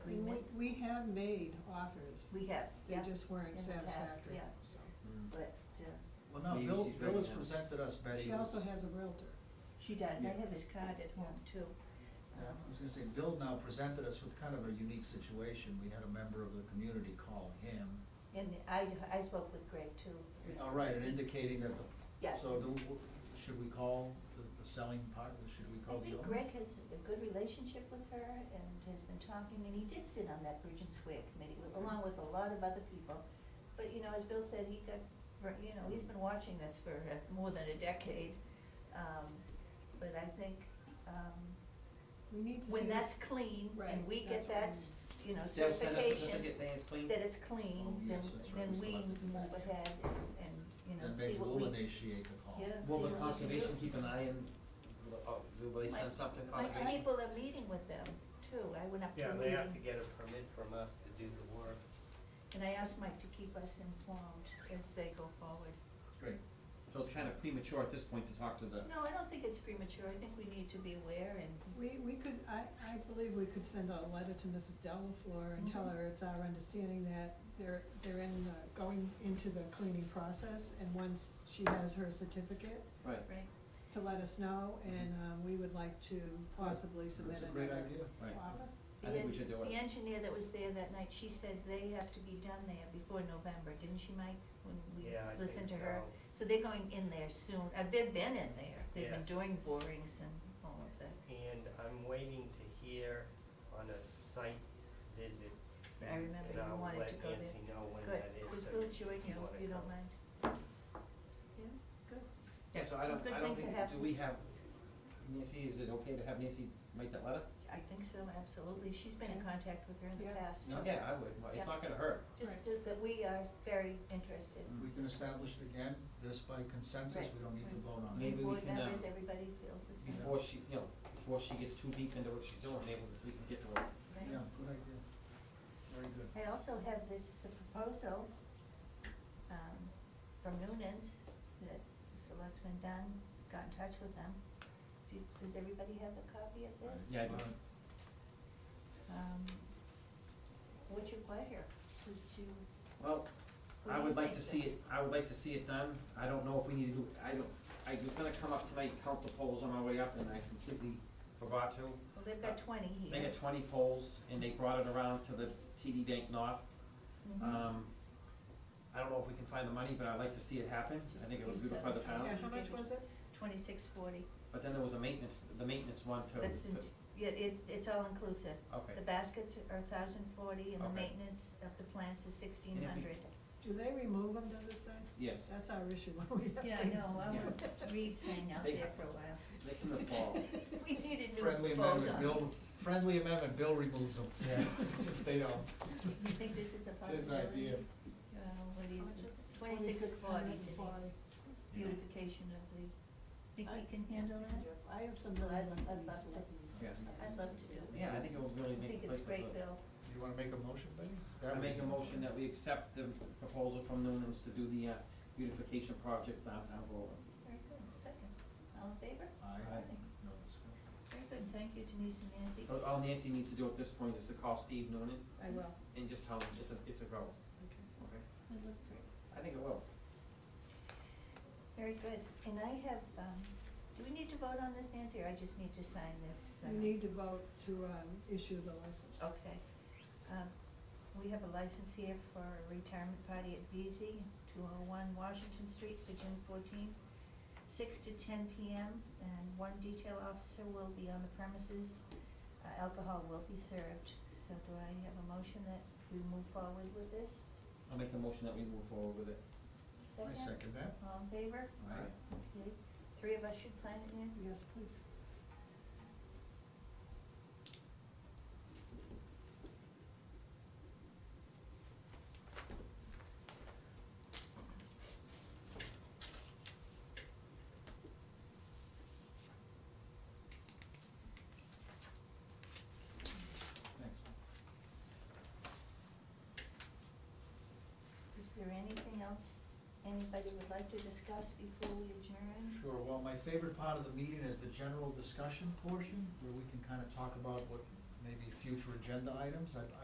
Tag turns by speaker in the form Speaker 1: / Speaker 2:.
Speaker 1: we have made offers,
Speaker 2: we have,
Speaker 1: they
Speaker 2: yeah,
Speaker 1: just
Speaker 2: in
Speaker 1: weren't
Speaker 2: the past,
Speaker 1: satisfactory.
Speaker 2: yeah,
Speaker 3: Mm.
Speaker 2: but, uh,
Speaker 3: Well, no,
Speaker 4: Maybe
Speaker 3: Bill,
Speaker 4: she's
Speaker 3: Bill has
Speaker 4: right now.
Speaker 3: presented us, Betty,
Speaker 1: She
Speaker 3: was-
Speaker 1: also has a Realtor.
Speaker 2: she does, I
Speaker 3: Yeah.
Speaker 2: have his card at home too.
Speaker 3: Yeah,
Speaker 2: Um,
Speaker 3: I was gonna say, Bill now presented us with kind of a unique situation. We had a member of the community call him.
Speaker 2: And I, I spoke with Greg too.
Speaker 3: All right, and indicating that the.
Speaker 2: Yeah.
Speaker 3: So do, should we call the, the selling part, should we
Speaker 2: I
Speaker 3: call the
Speaker 2: think
Speaker 3: owner?
Speaker 2: Greg has a good relationship with her and has been talking, and he did sit on that Bridge and Square Committee with- along with a lot of other people. But, you know, as Bill said, he got, ver- you know, he's been watching this for uh, more than a decade. Um, But I think, um,
Speaker 1: We need to see.
Speaker 2: when
Speaker 1: if-
Speaker 2: that's clean and
Speaker 1: Right,
Speaker 2: we
Speaker 1: that's
Speaker 2: get
Speaker 1: what I
Speaker 2: that,
Speaker 1: mean.
Speaker 2: you know,
Speaker 4: They'll send us a
Speaker 2: certification
Speaker 4: certificate saying it's clean.
Speaker 2: that it's
Speaker 3: Oh,
Speaker 2: clean, then,
Speaker 3: yes, that's right,
Speaker 2: then
Speaker 3: we still
Speaker 2: we
Speaker 3: have to do
Speaker 2: move
Speaker 3: that.
Speaker 2: ahead and, you know,
Speaker 3: And
Speaker 2: see
Speaker 3: maybe
Speaker 2: what we.
Speaker 3: we'll initiate the call.
Speaker 2: Yeah. see
Speaker 4: Will the
Speaker 2: what we can
Speaker 4: conservation
Speaker 2: do.
Speaker 4: keep an eye and, uh, do they send something to
Speaker 2: My
Speaker 4: conservation?
Speaker 2: people are meeting with them too, I went up to
Speaker 5: Yeah,
Speaker 2: a
Speaker 5: they have to
Speaker 2: meeting,
Speaker 5: get a permit from us to do the work.
Speaker 2: and I asked Mike to keep us informed as they go forward.
Speaker 3: Great.
Speaker 4: So it's kind of premature at this point to talk to the,
Speaker 2: No, I don't think it's premature, I think we need to be aware and,
Speaker 1: We, we could, I, I believe we could send a letter to Mrs. Delafleur and tell
Speaker 2: Mhm.
Speaker 1: her it's our understanding that they're, they're in, the- going into the cleaning process, and once she has her certificate,
Speaker 4: right,
Speaker 2: right,
Speaker 1: to let us know, and, um, we would like to possibly submit
Speaker 3: Mm-hmm. That's a
Speaker 1: another
Speaker 3: great idea.
Speaker 4: right.
Speaker 1: offer.
Speaker 4: I
Speaker 2: The
Speaker 4: think we
Speaker 2: en-
Speaker 4: should do
Speaker 2: The
Speaker 4: it.
Speaker 2: engineer that was there that night, she said they have to be done there before November, didn't she, Mike, when we
Speaker 5: Yeah, I
Speaker 2: listened to
Speaker 5: think
Speaker 2: her?
Speaker 5: so.
Speaker 2: they're going in there soon, uh, they've been in there, they've been
Speaker 5: Yes.
Speaker 2: doing borings and all of that.
Speaker 5: And I'm waiting to hear on a site visit.
Speaker 2: I remember you wanted to go there.
Speaker 5: And I'll let Nancy know when
Speaker 2: Good,
Speaker 5: that is.
Speaker 2: was
Speaker 5: so
Speaker 2: Bill
Speaker 5: if
Speaker 2: join you,
Speaker 5: wanna
Speaker 2: if you don't
Speaker 5: come.
Speaker 2: mind? Yeah, good.
Speaker 4: Yeah, so I
Speaker 2: Some
Speaker 4: don't,
Speaker 2: good
Speaker 4: I don't
Speaker 2: things
Speaker 4: think,
Speaker 2: have
Speaker 4: do
Speaker 2: happened.
Speaker 4: we have, Nancy, is it okay to have Nancy write that letter?
Speaker 2: I think so, absolutely. She's been in contact with her in the
Speaker 1: Yeah.
Speaker 2: past.
Speaker 4: No, yeah, I would, Well,
Speaker 2: Yeah.
Speaker 4: it's not gonna hurt.
Speaker 2: Just to- that we are very interested.
Speaker 4: Mm.
Speaker 3: We can establish it again, this by consensus,
Speaker 2: Right.
Speaker 3: we don't need to vote on it.
Speaker 4: Maybe we
Speaker 2: Board
Speaker 4: can, uh,
Speaker 2: members, everybody feels the same.
Speaker 4: Before she, you know, before she gets too deep into what she's doing, maybe we can get to her.
Speaker 2: right?
Speaker 3: Yeah, good idea. Very good.
Speaker 2: I also have this proposal, um, from Noonan's that Selectman Dunn got in touch with them. Do, does everybody have a copy of this?
Speaker 4: Yeah, I do.
Speaker 3: Fine.
Speaker 2: Um, what's your pleasure? Would you,
Speaker 4: Well,
Speaker 2: What
Speaker 4: I
Speaker 2: do you
Speaker 4: would like
Speaker 2: think
Speaker 4: to
Speaker 2: that-
Speaker 4: see it, I would like to see it done, I don't know if we need to do, I don't, I was gonna come up tonight, and count the polls on my way up, and I completely forgot to.
Speaker 2: well, they've got twenty here.
Speaker 4: They had twenty polls, and they brought it around to the TD Bank North.
Speaker 2: Mhm.
Speaker 4: Um, I don't know if we can find the money, but I'd like to see it happen, I think it would beautify the town.
Speaker 2: Yeah,
Speaker 1: Yeah,
Speaker 2: how
Speaker 1: how
Speaker 2: much
Speaker 1: much
Speaker 2: was
Speaker 1: was it?
Speaker 2: Twenty-six forty.
Speaker 4: But then there was a maintenance, the maintenance one too.
Speaker 2: That's, in- yeah, it, it's all inclusive.
Speaker 4: Okay.
Speaker 2: The baskets are thousand forty and the
Speaker 4: Okay.
Speaker 2: maintenance of the plants is sixteen
Speaker 4: And if
Speaker 2: hundred.
Speaker 4: we-
Speaker 1: Do they remove them, does it say?
Speaker 4: Yes,
Speaker 1: That's our issue when we have
Speaker 2: Yeah, I
Speaker 1: things.
Speaker 2: know, I was Reed's hanging out
Speaker 4: They-
Speaker 2: there for a while.
Speaker 4: they can fall.
Speaker 2: We need a new
Speaker 3: Friendly amendment,
Speaker 2: proposal.
Speaker 3: Bill, friendly amendment, Bill removes them.
Speaker 4: Yeah.
Speaker 3: If they don't.
Speaker 2: You think this is a
Speaker 3: It's his
Speaker 2: possibility?
Speaker 3: idea.
Speaker 2: Uh, what do you
Speaker 1: How much
Speaker 2: think?
Speaker 1: is it?
Speaker 2: Twenty-six forty,
Speaker 1: 2640.
Speaker 2: Denise. Beautification of the, think
Speaker 1: I-
Speaker 2: we can handle that?
Speaker 1: I have some.
Speaker 2: Well, I'd-
Speaker 1: really
Speaker 2: I'd
Speaker 1: nice
Speaker 2: love to-
Speaker 1: letters.
Speaker 4: Yes.
Speaker 2: I'd love to do it.
Speaker 4: Yeah, I think it would really
Speaker 2: I
Speaker 4: make
Speaker 2: think
Speaker 4: the place
Speaker 2: it's
Speaker 4: look
Speaker 2: great,
Speaker 4: good.
Speaker 2: Bill.
Speaker 3: You wanna make a motion, Betty? That
Speaker 4: I
Speaker 3: would
Speaker 4: make
Speaker 3: be-
Speaker 4: a motion that we accept the proposal from Noonan's to do the uh, beautification project downtown Groveland.
Speaker 2: Very good, second. All in favor?
Speaker 3: Aye.
Speaker 4: Aye.
Speaker 3: No discussion.
Speaker 2: Very good, thank you Denise and Nancy.
Speaker 3: Oh.
Speaker 4: But All Nancy needs to do at this point is to call Steve Noonan
Speaker 1: I will,
Speaker 4: and just tell him it's a, it's a go,
Speaker 1: okay.
Speaker 4: okay?
Speaker 2: I'd love to.
Speaker 4: I think it will.
Speaker 2: Very good, and I have, um, do we need to vote on this, Nancy, or I just need to sign this? uh,
Speaker 1: You need to vote to, um, issue the license.
Speaker 2: Okay, um, we have a license here for a retirement party at VZ, two oh one Washington Street for June fourteenth, six to ten P M, and one detail officer will be on the premises. Uh, alcohol will be served, so do I have a motion that we move forward with this?
Speaker 4: I'll make a motion that we move forward with it.
Speaker 2: Second?
Speaker 3: I second that.
Speaker 2: All in favor?
Speaker 3: Aye.
Speaker 2: Okay, three of us should sign it, Nancy?
Speaker 1: Yes, please.
Speaker 3: Thanks.
Speaker 2: Mm. Is there anything else anybody would like to discuss before we adjourn?
Speaker 3: Sure, well, my favorite part of the meeting is the general discussion portion, where we can kind of talk about what, maybe future agenda items. I,